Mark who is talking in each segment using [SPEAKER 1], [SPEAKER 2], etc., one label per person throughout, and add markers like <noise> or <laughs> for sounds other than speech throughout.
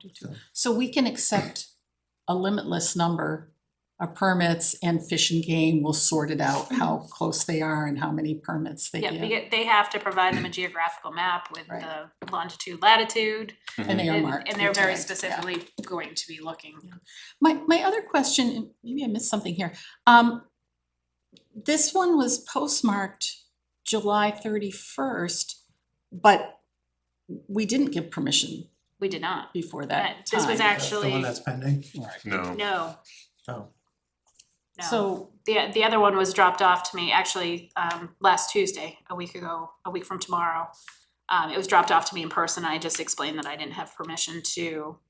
[SPEAKER 1] do too. So we can accept a limitless number of permits and Fish and Game will sort it out, how close they are and how many permits they
[SPEAKER 2] Yeah,
[SPEAKER 1] give.
[SPEAKER 2] because they have to provide them a geographical map with
[SPEAKER 1] Right.
[SPEAKER 2] the longitude, latitude,
[SPEAKER 1] And they are
[SPEAKER 2] and,
[SPEAKER 1] marked.
[SPEAKER 2] and they're
[SPEAKER 1] with
[SPEAKER 2] very
[SPEAKER 1] tags, yeah.
[SPEAKER 2] specifically going to be looking.
[SPEAKER 1] My, my other question, and maybe I missed something here, um, this one was postmarked July thirty-first, but we didn't give permission
[SPEAKER 2] We did not.
[SPEAKER 1] before
[SPEAKER 2] That,
[SPEAKER 1] that
[SPEAKER 2] this was
[SPEAKER 1] time.
[SPEAKER 2] actually,
[SPEAKER 3] The one
[SPEAKER 2] no,
[SPEAKER 3] that's pending?
[SPEAKER 4] No,
[SPEAKER 2] no.
[SPEAKER 3] Oh,
[SPEAKER 1] So,
[SPEAKER 2] The, the other one was dropped off to me actually, um, last Tuesday, a week ago, a week from tomorrow. Um, it was dropped off to me in person. I just explained that I didn't have permission to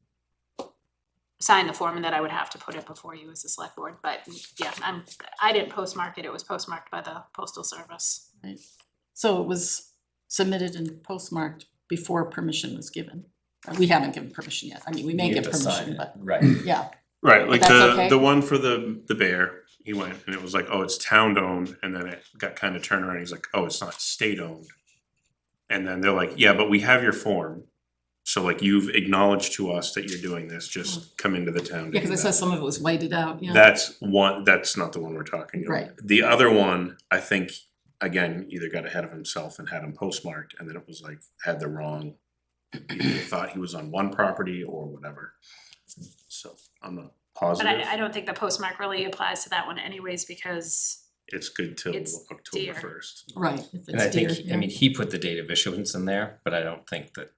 [SPEAKER 2] sign the form and that I would have to put it before you as a select board, but yeah, I'm, I didn't postmark it. It was postmarked by the postal service.
[SPEAKER 1] so it was submitted and postmarked before permission was given. Uh, We haven't given permission yet. I mean, we may
[SPEAKER 5] You
[SPEAKER 1] give
[SPEAKER 5] have to sign
[SPEAKER 1] permission,
[SPEAKER 5] it,
[SPEAKER 1] but,
[SPEAKER 5] Right.
[SPEAKER 1] yeah,
[SPEAKER 4] right, like
[SPEAKER 1] That's
[SPEAKER 4] the
[SPEAKER 1] okay.
[SPEAKER 4] the one for the the bear, he went and it was like, oh, it's town owned, and then it got kind of turned around, he's like, oh, it's not state owned. And then they're like, yeah, but we have your form, so like you've acknowledged to us that you're doing this, just come into the town. to
[SPEAKER 1] Mm. yeah,
[SPEAKER 4] do
[SPEAKER 1] cause I
[SPEAKER 4] that."
[SPEAKER 1] said some of it was whited out, yeah.
[SPEAKER 4] That's one, that's not the one we're talking about.
[SPEAKER 1] Right.
[SPEAKER 4] The other one, I think, again, either got ahead of himself and had him postmarked, and then it was like, had the wrong. either they Thought he was on one property or whatever. So I'm not
[SPEAKER 2] But
[SPEAKER 4] positive,
[SPEAKER 2] I, I don't think the postmark really applies to that one anyways, because
[SPEAKER 4] it's good till
[SPEAKER 2] It's
[SPEAKER 4] October
[SPEAKER 2] deer.
[SPEAKER 4] first.
[SPEAKER 1] Right, if
[SPEAKER 5] And I
[SPEAKER 1] it's
[SPEAKER 5] think,
[SPEAKER 1] deer,
[SPEAKER 5] he- I
[SPEAKER 1] yeah.
[SPEAKER 5] mean, he put the date of issuance in there, but I don't think that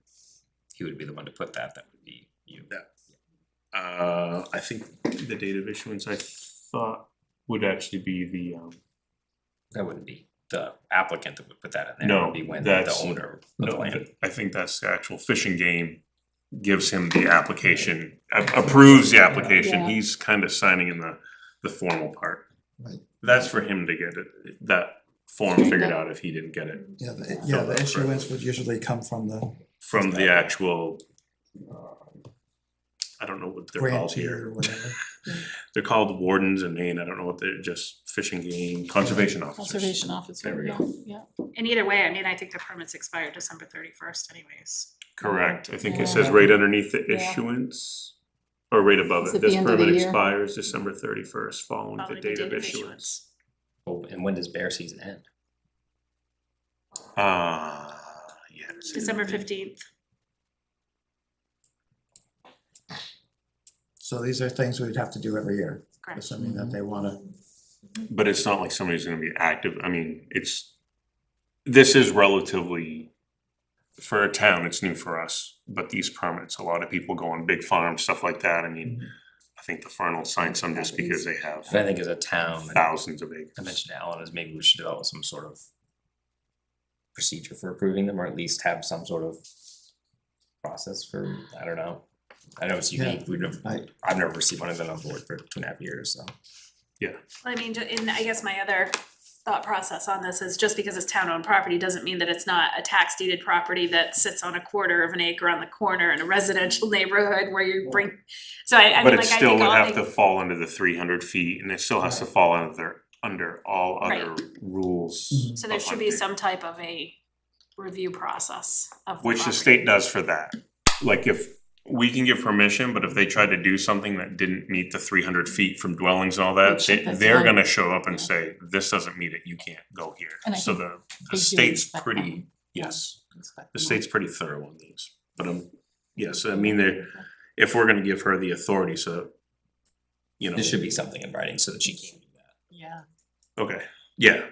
[SPEAKER 5] he would be the one to put that, that would be you.
[SPEAKER 4] Uh, I think the date of issuance I thought would actually be the um,
[SPEAKER 5] That wouldn't be the applicant that would put that in there, it
[SPEAKER 4] No,
[SPEAKER 5] would be when the
[SPEAKER 4] that's-
[SPEAKER 5] owner of the
[SPEAKER 4] No,
[SPEAKER 5] land.
[SPEAKER 4] th- I think that's the actual fishing game gives him the application, a- approves the application,
[SPEAKER 1] Yeah.
[SPEAKER 4] he's kind of signing in the, the formal part.
[SPEAKER 3] Right.
[SPEAKER 4] That's for him to get it, that form figured
[SPEAKER 1] Yeah.
[SPEAKER 4] out if he didn't get it
[SPEAKER 3] yeah, the, yeah,
[SPEAKER 4] Filled out
[SPEAKER 3] the
[SPEAKER 4] for it.
[SPEAKER 3] issuance would usually come from the
[SPEAKER 4] from the actual,
[SPEAKER 3] uh,
[SPEAKER 4] I don't know what they're called
[SPEAKER 3] grantee
[SPEAKER 4] here.
[SPEAKER 3] or whatever.
[SPEAKER 4] They're called wardens in Maine, I don't know what they're, just fishing game, conservation officers.
[SPEAKER 1] Conservation officer,
[SPEAKER 4] There we
[SPEAKER 1] yeah,
[SPEAKER 4] go.
[SPEAKER 1] yeah.
[SPEAKER 2] in either way, I mean, I think the permits expire December thirty-first anyways.
[SPEAKER 4] Correct, I think
[SPEAKER 1] Yeah.
[SPEAKER 4] it says right underneath the
[SPEAKER 1] Yeah.
[SPEAKER 4] issuance, or right above
[SPEAKER 1] It's
[SPEAKER 4] it,
[SPEAKER 1] at the
[SPEAKER 4] this
[SPEAKER 1] end of the
[SPEAKER 4] permit
[SPEAKER 1] year.
[SPEAKER 4] expires December thirty-first, following the
[SPEAKER 2] Following
[SPEAKER 4] date of issuance.
[SPEAKER 5] Oh, And when does bear season end?
[SPEAKER 4] Uh, yeah. it's in
[SPEAKER 2] December
[SPEAKER 4] the-
[SPEAKER 2] fifteenth.
[SPEAKER 3] So these are things we'd have to do every year,
[SPEAKER 2] Correct.
[SPEAKER 3] assuming that they wanna,
[SPEAKER 4] But it's not like somebody's gonna be active, I mean, it's, this is relatively, for a town, it's new for us, but these permits, a lot of people go on big farms, stuff like that, I mean,
[SPEAKER 1] Mm-hmm.
[SPEAKER 4] I think the farm will sign some just because they have
[SPEAKER 5] And I think as a
[SPEAKER 1] um,
[SPEAKER 5] town, and
[SPEAKER 4] thousands of acres.
[SPEAKER 5] I mentioned to Alan, is maybe we should develop some sort of procedure for approving them, or at least have some sort of process for, I don't know. I know it's
[SPEAKER 3] Yeah.
[SPEAKER 5] unique, we've never,
[SPEAKER 3] I-
[SPEAKER 5] I've never received one, I've been on board for two and a half years, so.
[SPEAKER 2] Well, I mean, ju- and I guess my other thought process on this is just because it's town-owned property doesn't mean that it's not a tax deeded property that sits on a quarter of an acre on the corner in a residential <laughs> neighborhood where you bring, so I, I
[SPEAKER 4] But
[SPEAKER 2] mean,
[SPEAKER 4] it
[SPEAKER 2] like, I
[SPEAKER 4] still
[SPEAKER 2] think
[SPEAKER 4] would
[SPEAKER 2] all
[SPEAKER 4] have
[SPEAKER 2] the,
[SPEAKER 4] to fall under the three hundred feet, and it still has to fall under, under all
[SPEAKER 2] Right. Mm-hmm.
[SPEAKER 4] other rules.
[SPEAKER 3] Mhm.
[SPEAKER 2] so there
[SPEAKER 4] of
[SPEAKER 2] should be
[SPEAKER 4] hunting.
[SPEAKER 2] some type of a review process of the
[SPEAKER 4] Which the
[SPEAKER 2] property.
[SPEAKER 4] state does for that. Like if, we can give permission, but if they tried to do something that didn't meet the three hundred feet from dwellings and all that,
[SPEAKER 1] Which
[SPEAKER 4] they,
[SPEAKER 1] that's
[SPEAKER 4] they're
[SPEAKER 1] fine.
[SPEAKER 4] gonna show up and
[SPEAKER 1] Yeah.
[SPEAKER 4] say, this doesn't meet it, you can't go here.
[SPEAKER 1] And I
[SPEAKER 4] So
[SPEAKER 1] think
[SPEAKER 4] the,
[SPEAKER 1] they
[SPEAKER 4] the
[SPEAKER 1] do
[SPEAKER 4] state's
[SPEAKER 1] respect that one.
[SPEAKER 4] pretty,
[SPEAKER 1] Yeah.
[SPEAKER 4] yes,
[SPEAKER 1] Inspect
[SPEAKER 4] the
[SPEAKER 1] them all.
[SPEAKER 4] state's pretty thorough on these. But um, yes, I mean, they're, if we're gonna give her the authority, so, you know,
[SPEAKER 5] There should be something in writing so that she can do that.
[SPEAKER 1] Yeah,
[SPEAKER 4] okay, yeah.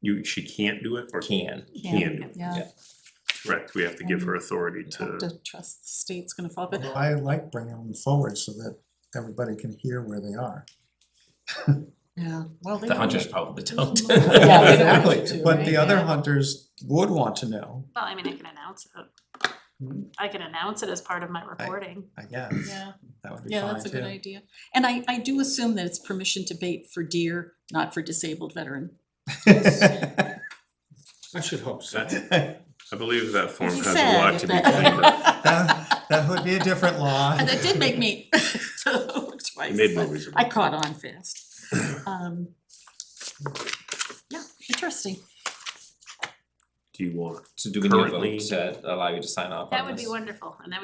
[SPEAKER 4] You, she can't do it or
[SPEAKER 5] Can,
[SPEAKER 4] can do it,
[SPEAKER 1] yeah.
[SPEAKER 4] correct, we have to give her authority
[SPEAKER 1] You Have to trust the state's gonna follow,
[SPEAKER 5] Uh-huh.
[SPEAKER 1] but
[SPEAKER 3] I like bringing them forward so that everybody can hear where they are.
[SPEAKER 1] yeah, well, they.
[SPEAKER 5] the
[SPEAKER 1] don't
[SPEAKER 5] hunters
[SPEAKER 1] know.
[SPEAKER 5] probably <laughs> don't.
[SPEAKER 1] Yeah,
[SPEAKER 3] <laughs>
[SPEAKER 1] they
[SPEAKER 5] <laughs>
[SPEAKER 1] don't want
[SPEAKER 3] Exactly,
[SPEAKER 1] to,
[SPEAKER 3] but
[SPEAKER 1] right?
[SPEAKER 3] the other
[SPEAKER 2] Yeah.
[SPEAKER 3] hunters would want to know,
[SPEAKER 2] Well, I mean, I can announce it. I can announce it as part of my reporting.
[SPEAKER 3] I guess,
[SPEAKER 1] Yeah,
[SPEAKER 3] that would be fine too.
[SPEAKER 1] yeah, that's a good idea. And I, I do assume that it's permission to bait for deer, not for disabled veteran.
[SPEAKER 3] <laughs> I should hope so.
[SPEAKER 4] That's- I believe that form
[SPEAKER 1] He
[SPEAKER 4] has a
[SPEAKER 1] said
[SPEAKER 4] lot to be
[SPEAKER 1] that- <laughs>
[SPEAKER 4] cleaned up.
[SPEAKER 3] That, that would be a different law.
[SPEAKER 1] And it did make me <laughs> look twice.
[SPEAKER 4] You made
[SPEAKER 1] but
[SPEAKER 4] movies about
[SPEAKER 1] I caught on fast. Um, Yeah, interesting.
[SPEAKER 4] Do you want
[SPEAKER 5] So do we need a
[SPEAKER 4] Currently-
[SPEAKER 5] vote to allow you to sign off on this?
[SPEAKER 2] That would be wonderful, and then we